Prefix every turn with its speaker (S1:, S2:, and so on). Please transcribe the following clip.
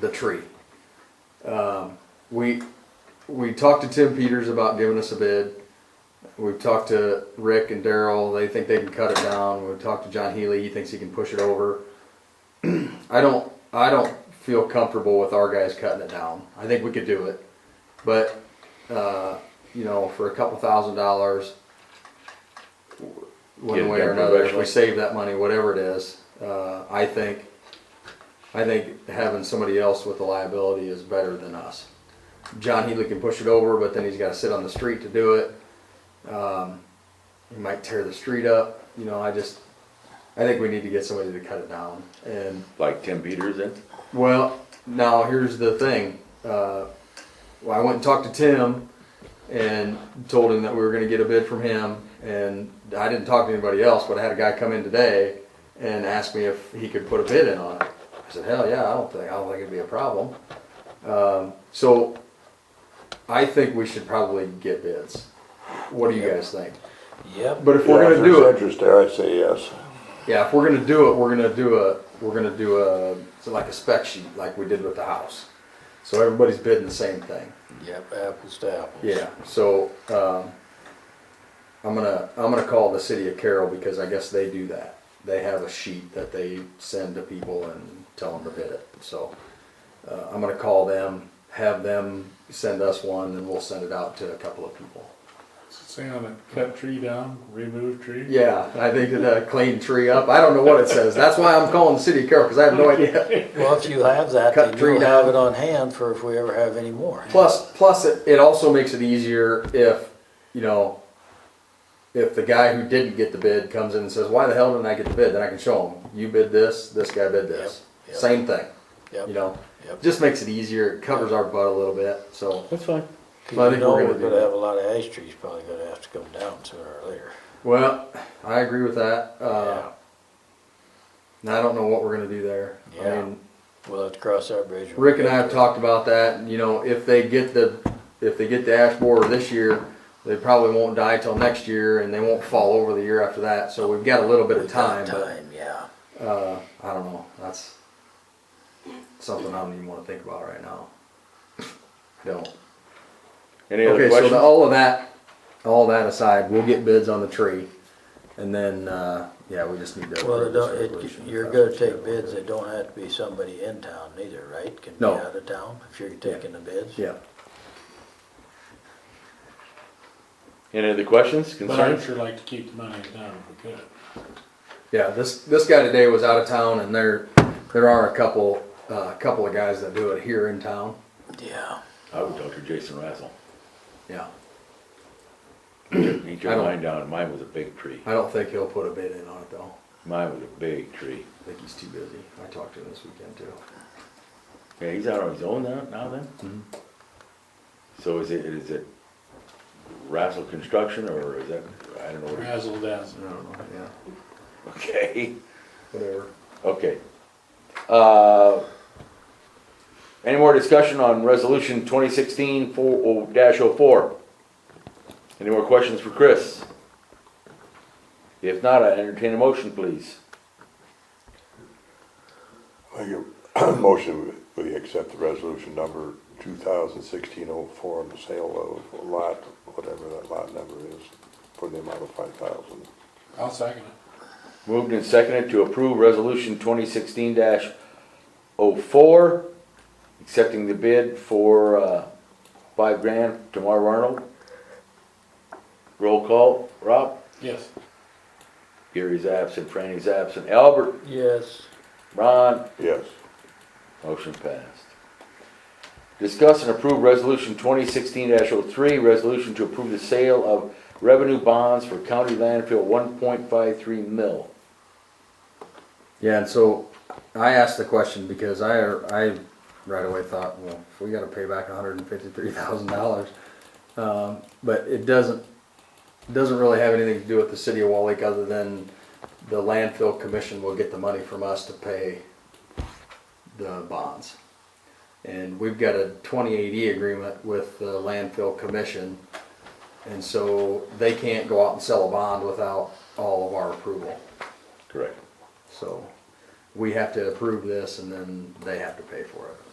S1: the tree. Um, we we talked to Tim Peters about giving us a bid. We've talked to Rick and Daryl. They think they can cut it down. We've talked to John Healy. He thinks he can push it over. I don't I don't feel comfortable with our guys cutting it down. I think we could do it, but uh, you know, for a couple thousand dollars, w-
S2: Get
S1: one
S2: it
S1: way or
S2: done
S1: another, if we
S2: professionally.
S1: save that money, whatever it is, uh, I think I think having somebody else with the liability is better than us. John Healy can push it over, but then he's got to sit on the street to do it. Um, he might tear the street up. You know, I just, I think we need to get somebody to cut it down. And
S2: Like Tim Peters then?
S1: well, now here's the thing. Uh, well, I went and talked to Tim and told him that we were going to get a bid from him. And I didn't talk to anybody else, but I had a guy come in today and ask me if he could put a bid in on it. I said, hell yeah, I don't think, I don't think it'd be a problem. Um, so I think we should probably get bids. What do you guys think?
S3: Yep.
S1: But if we're
S4: Yeah,
S1: going to do
S4: If
S1: it,
S4: there's interest there, I'd say yes.
S1: yeah, if we're gonna do it, we're gonna do a, we're gonna do a, so like a spec sheet, like we did with the house. So everybody's bidding the same thing.
S3: Yep, apples to apples.
S1: Yeah, so, um, I'm gonna, I'm gonna call the city of Carroll because I guess they do that. They have a sheet that they send to people and tell them to bid it, so. Uh, I'm gonna call them, have them send us one and we'll send it out to a couple of people.
S5: Saying on a cut tree down, remove tree?
S1: Yeah, I think that, uh, clean tree up, I don't know what it says, that's why I'm calling the city of Carroll, cause I have no idea.
S3: Well, if you have that,
S1: Cut
S3: then
S1: tree
S3: you'll have
S1: down.
S3: it on hand for if we ever have any more.
S1: Plus, plus it, it also makes it easier if, you know, if the guy who didn't get the bid comes in and says, why the hell didn't I get the bid? Then I can show him, you bid this, this guy bid this.
S3: Yep, yep.
S1: Same thing, you
S3: Yep.
S1: know?
S3: Yep.
S1: Just makes it easier, it covers our butt a little bit, so.
S5: That's fine.
S1: Well, I
S3: Cause you
S1: think
S3: know
S1: we're
S3: we're
S1: gonna do
S3: gonna
S1: that.
S3: have a lot of ash trees probably gonna have to come down sooner or later.
S1: Well, I agree with that.
S3: Yeah.
S1: Uh, and I don't know what we're gonna do there. I
S3: Yeah.
S1: mean,
S3: We'll have to cross that bridge. when we
S1: Rick and I
S3: get
S1: have
S3: to it.
S1: talked about that, and, you know, if they get the, if they get the ash borer this year, they probably won't die till next year, and they won't fall over the year after that, so we've got a little bit of
S3: We've
S1: time,
S3: got
S1: but,
S3: Time, yeah.
S1: uh, I don't know, that's something I don't even wanna think about right now. I Don't.
S2: Any other
S1: Okay, so the-
S2: questions?
S1: all of that, all that aside, we'll get bids on the tree, and then, uh, yeah, we just need to.
S3: Well,
S1: approve
S3: it
S1: this
S3: don't, it,
S1: resolution.
S3: you're gonna take bids that don't have to be somebody in town neither, right? Can be
S1: No.
S3: out of town if you're taking the bids.
S1: Yeah,
S2: Any other questions,
S5: But I'd
S2: concerns?
S5: sure like to keep the money down if we could.
S1: Yeah, this, this guy today was out of town and there, there are a couple, uh, couple of guys that do it here in town.
S3: Yeah.
S2: I would talk to Jason Razzle.
S1: Yeah.
S2: He
S1: I
S2: turned
S1: don't-
S2: mine down, and mine was a big tree.
S1: I don't think he'll put a bid in on it though.
S2: Mine was a big tree.
S1: I think he's too busy. I talked to him this weekend too.
S2: Yeah, he's out on his own now, now then? So is it, is it Razzle Construction, or is that, I don't know what, it-
S5: Razzle dazzle.
S1: I don't know, yeah,
S2: okay,
S1: whatever.
S2: okay. Uh, Any more discussion on resolution twenty sixteen four, dash oh four? Any more questions for Chris? If not, I entertain a motion, please.
S4: I give- Motion, we accept the resolution number 2016-04 on the sale of lot, whatever that lot number is, for the amount of 5,000.
S5: I'll second it.
S2: Moved and seconded to approve resolution twenty sixteen 4 accepting the bid for, uh, five grand to Marv Arnold. Roll call, Rob?
S5: Yes.
S2: Gary's absent, Franny's absent, Albert,
S3: Yes.
S2: Ron,
S4: Yes,
S2: motion passed. Discuss and approve resolution twenty sixteen 3 resolution to approve the sale of revenue bonds for county landfill one point five three mil.
S1: Yeah, and so I asked the question because I, I right away thought, well, if we gotta pay back hundred and fifty-three thousand dollars. Um, but it doesn't, it doesn't really have anything to do with the city of Wall Lake other than the landfill commission will get the money from us to pay the bonds. And we've got a twenty-eight E agreement with the landfill commission. And so they can't go out and sell a bond without all of our approval.
S2: Correct.
S1: So we have to approve this and then they have to pay for it.